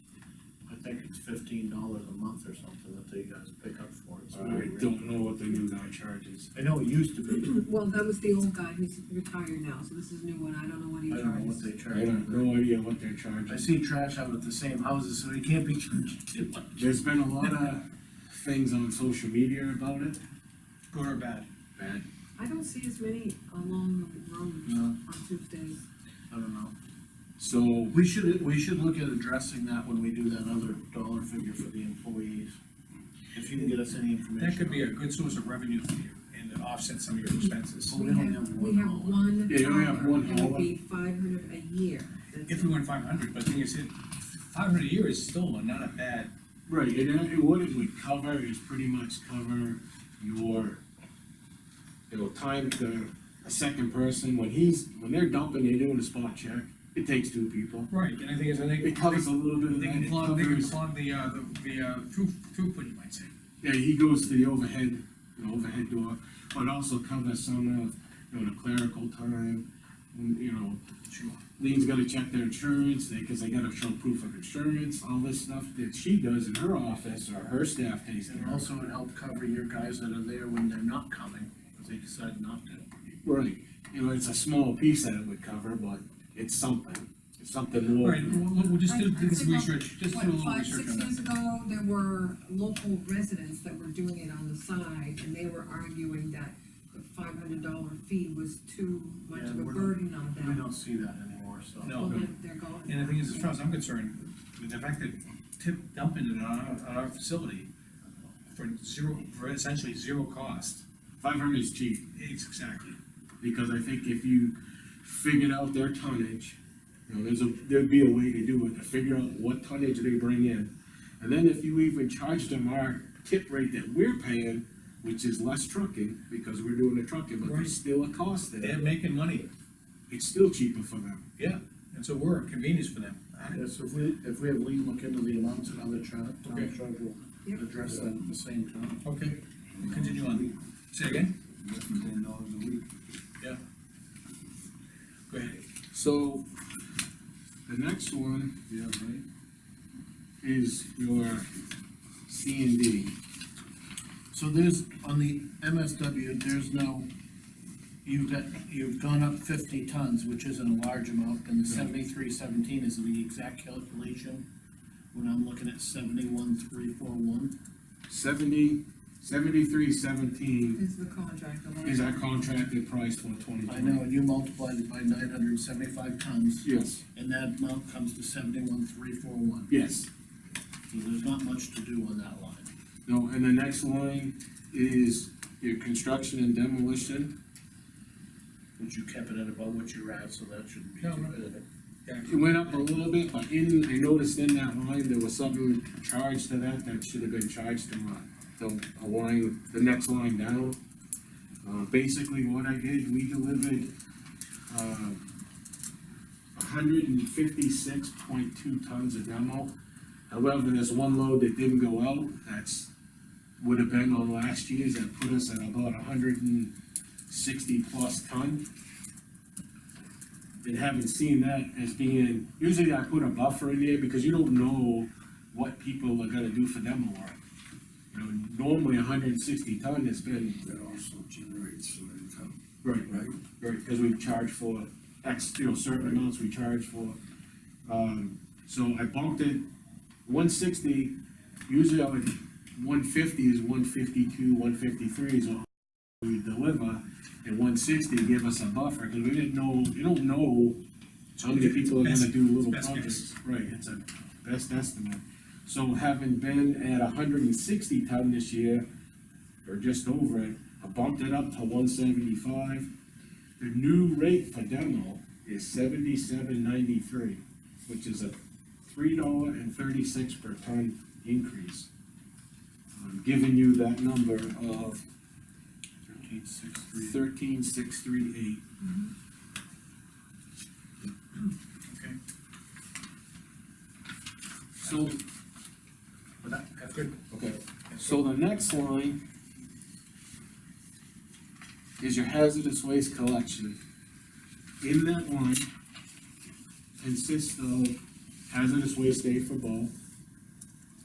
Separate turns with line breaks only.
think it's fifteen dollars a month or something that they guys pick up for it. so
I don't know what the new guy charges.
I know it used to be,
Well, that was the old guy, he's retired now, so this is a new one, I don't know what he
I don't know what
charges.
they
I have
charge.
no idea what they're charging.
I see trash out at the same houses, so they can't be charged too much.
There's been a lot of things on social media about it.
good or bad?
Bad.
I don't see as many along the road
No,
on Tuesdays.
I don't know.
So,
We should, we should look at addressing that when we do that other dollar figure for the employees. If you can get us any information.
That could be a good source of revenue for you and to offset some of your expenses.
Well, Oh, we only have
We
one
have
hauler.
one.
Yeah, you only have one
hauler, and it'd
hauler.
be five hundred a year. That's
If we went five hundred, but the thing is, five hundred a year is still not a bad,
right, and it, what it would cover is pretty much cover your, it'll time the, a second person, when he's, when they're dumping, they're doing a spot check, it takes two people.
right, and I think it's, I think.
It covers a little bit of
They
that,
can
it
clog, they can
covers,
clog the, uh, the, the, uh, through, throughput, you might say.
yeah, he goes to the overhead, the overhead door, but also covers some of, you know, the clerical time, you know,
Sure.
Lean's gotta check their insurance, they, cause they gotta show proof of insurance, all this stuff that she does in her office or her staff takes care
And
of.
also it helped cover your guys that are there when they're not coming, if they decide not to.
Right, you know, it's a small piece that it would cover, but it's something, it's something
All
more.
right, we'll, we'll- we'll just do, do some
I- I think
research, just
What,
do a little
five,
research
six
on that.
years ago, there were local residents that were doing it on the side, and they were arguing that the five hundred dollar fee was too much
Yeah,
of a
we're not-
burden on
We
them.
don't see that anymore, so.
No.
Well, then they're going.
And the thing is, as far as I'm concerned, with the fact that tip dumping it on our, on our facility for zero, for essentially zero cost,
Five hundred is cheap,
it's exactly.
because I think if you figured out their tonnage, you know, there's a, there'd be a way to do it, to figure out what tonnage they bring in. And then if you even charge them our tip rate that we're paying, which is less trucking, because we're doing the trucking, but
Right.
there's still a cost there.
They're making money,
it's still cheaper for them.
yeah, and so we're a convenience for them.
Yeah, so if we, if we have Lee look into the amounts and other tra- town
Okay.
charge,
Yep.
we'll address that at the same time.
Okay, continue on. Say again?
Ten dollars a week.
Yeah. Go ahead.
So, the next one
Yeah, right.
is your C and D.
So there's, on the MSW, there's no, you've got, you've gone up fifty tons, which isn't a large amount, and the seventy-three seventeen is the exact calculation. When I'm looking at seventy-one three four one,
Seventy, seventy-three seventeen
Is the contract, the
is our contracted price for twenty twenty.
I know, and you multiplied it by nine hundred and seventy-five tons,
Yes,
and that amount comes to seventy-one three four one.
yes.
So there's not much to do on that line.
No, and the next line is your construction and demolition.
But you kept it at about what you're at, so that shouldn't be
No,
too
no.
bad.
It went up a little bit, but in, I noticed in that line, there was something charged to that that should have been charged to my, the, a line, the next line down. Uh, basically what I did, we delivered, uh, hundred and fifty-six point two tons of demo. However, there's one load that didn't go out, that's, would have been on last year's, that put us at about hundred and sixty plus ton. And haven't seen that as being, usually I put a buffer in there because you don't know what people are gonna do for demo work. You know, normally hundred and sixty ton has been,
that also generates some income,
right,
right?
Right, because we charge for X, you know, certain amounts we charge for. Um, so I bumped it one sixty, usually I would, one fifty is one fifty-two, one fifty-three is what we deliver. And one sixty gave us a buffer, because we didn't know, you don't know how many people are gonna do little
Best guess.
projects. Right, it's a best estimate. So having been at hundred and sixty ton this year, or just over it, I bumped it up to one seventy-five. The new rate for demo is seventy-seven ninety-three, which is a three dollar and thirty-six per ton increase. I'm giving you that number of
Thirteen six three.
thirteen six three eight.
Okay.
So,
But that, that's good.
okay,
That's
so the next line is your hazardous waste collection. In that line consists of hazardous waste day for both,